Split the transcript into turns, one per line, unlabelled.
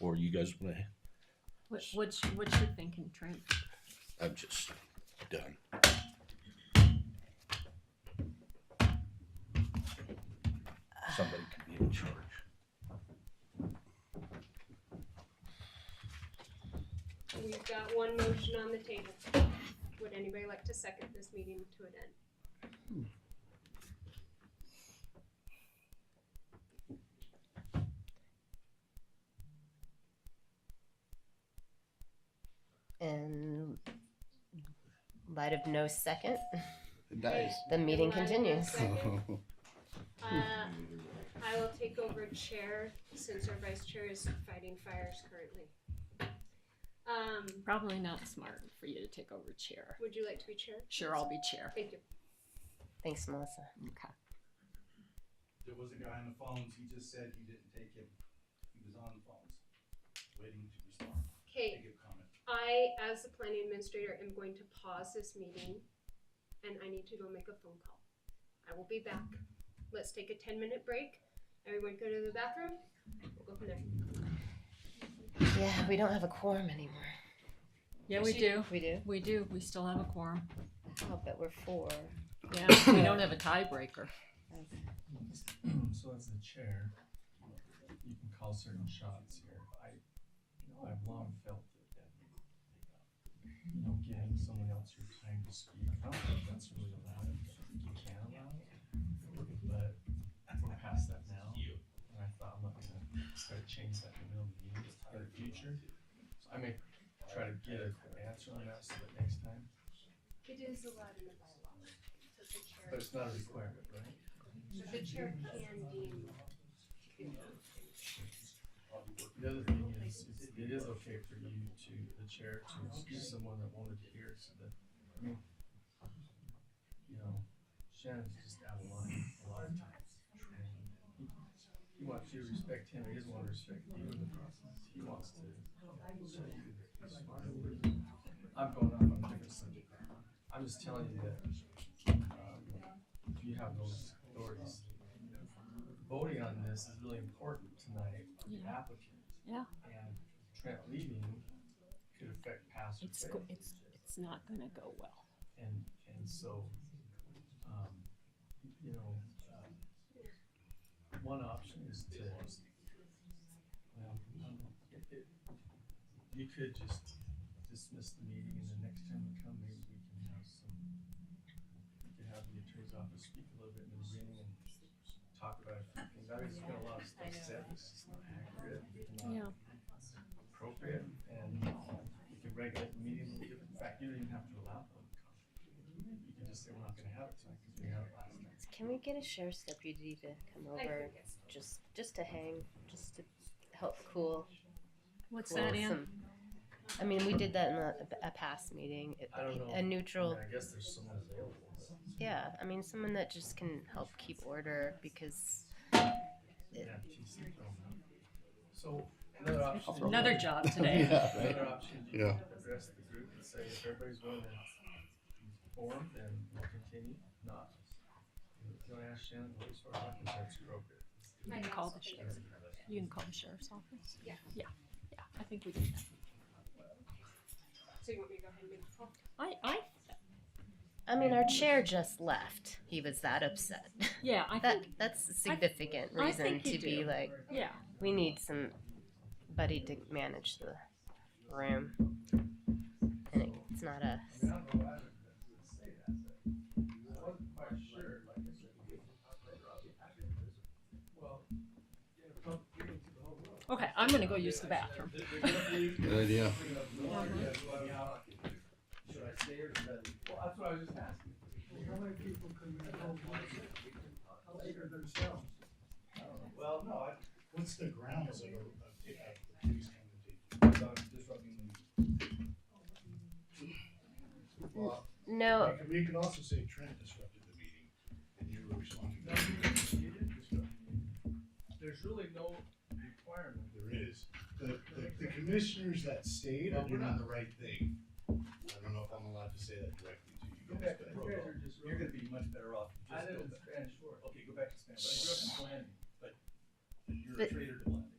Or you guys wanna,
What, what's, what's your thinking, Trent?
I'm just done. Somebody could be in charge.
We've got one motion on the table. Would anybody like to second this meeting to an end?
In light of no second,
Nice.
the
In
meeting
line with
continues.
second. Uh, I will take over chair since our vice chair is fighting fires currently. Um,
Probably not smart for you to take over chair.
would you like to be chair?
Sure, I'll be chair.
Thank you.
Thanks, Melissa.
Okay.
There was a guy on the phones, he just said he didn't take him. He was on the phones, waiting to respond, to
Okay,
give comment.
I, as the planning administrator, am going to pause this meeting and I need to go make a phone call. I will be back. Let's take a ten minute break. Everyone go to the bathroom. We'll go from there.
Yeah, we don't have a quorum anymore.
Yeah, we do.
We do?
We do. We still have a quorum.
I'll bet we're four.
Yeah, we don't have a tiebreaker.
So as the chair, you can call certain shots here. I, you know, I've long felt that that, you know, giving someone else your time to speak, I don't think that's really allowed. I think you can allow it, but we're past that now. And I thought, I'm not gonna try to change that in the middle of the meeting in the future. So I may try to get an answer on that so that next time,
It is allowed in the bylaw. So the chair,
but it's not a requirement, right?
so the chair can deem.
The other thing is, is it- it is okay for you to, the chair, to excuse someone that wanted to hear, so that, I mean, you know, Shannon's just out of line a lot of times. And he- He wants you to respect him, he doesn't want to respect you in the process, he wants to show you that he's smarter than you. I'm going off on a different subject. I'm just telling you that, um, you have those authorities. Voting on this is really important tonight for the
Yeah.
applicant.
Yeah.
And Trent leaving could affect pass or
It's, go-
fail.
it's, it's not gonna go well.
And, and so, um, you know, uh, one option is to, well, um, it, it, you could just dismiss the meeting and the next time we come, maybe we can have some, we could have the attorney's office speak a little bit in the beginning and talk about a few things. I mean, there's been a lot of stuff said, it's not accurate, it's not appropriate and uh, you can regulate the meeting. In fact, you don't even have to allow public comment. You can just say, we're not gonna have it tonight because we had it last night.
Can we get a sheriff's deputy to come
I
over,
think it's-
just, just to hang, just to help cool?
What's
cool
that, Ann?
some- I mean, we did that in a, a past meeting. It-
I don't know.
A
I
neutral
mean, I guess there's someone available. but-
Yeah, I mean, someone that just can help keep order because It-
Yeah, geez, I don't know. So another option.
throw
Another job today.
Yeah, right.
Another option, you
Yeah.
can address the group and say, if everybody's willing to form, then we'll continue, not. If you wanna ask Shannon, what is our, I think that's appropriate.
You can call the sheriff. You can call the sheriff's office.
Yeah.
Yeah, yeah, I think we did that.
So you want me to go ahead and make the call?
I, I,
I mean, our chair just left. He was that upset.
yeah, I
that
think,
that's a significant
I
reason
think you
to be
do.
like,
yeah.
we need some buddy to manage the room, and it, it's not us.
I don't know why I would say that, but I wasn't quite sure, like I said, well, yeah, well, we need to go.
Okay, I'm gonna go use the bathroom.
Good idea.
"Oh,
Should I stay or should I leave? Well, that's what I was just asking. How many people can you hold later themselves? Well, no, I,
What's the grounds of, of, of these kind of things?
without disrupting the.
Well,
No,
we could- We could also say Trent disrupted the meeting, and you were responding.
There's really no requirement.
There is, the, the, the commissioners that stayed are doing the right thing. I don't know if I'm allowed to say that directly to you guys, but.
You're gonna be much better off. I live in Spanish Fork. Okay, go back to Spanish. I grew up in Flanders, but
You're a
But-
traitor to land.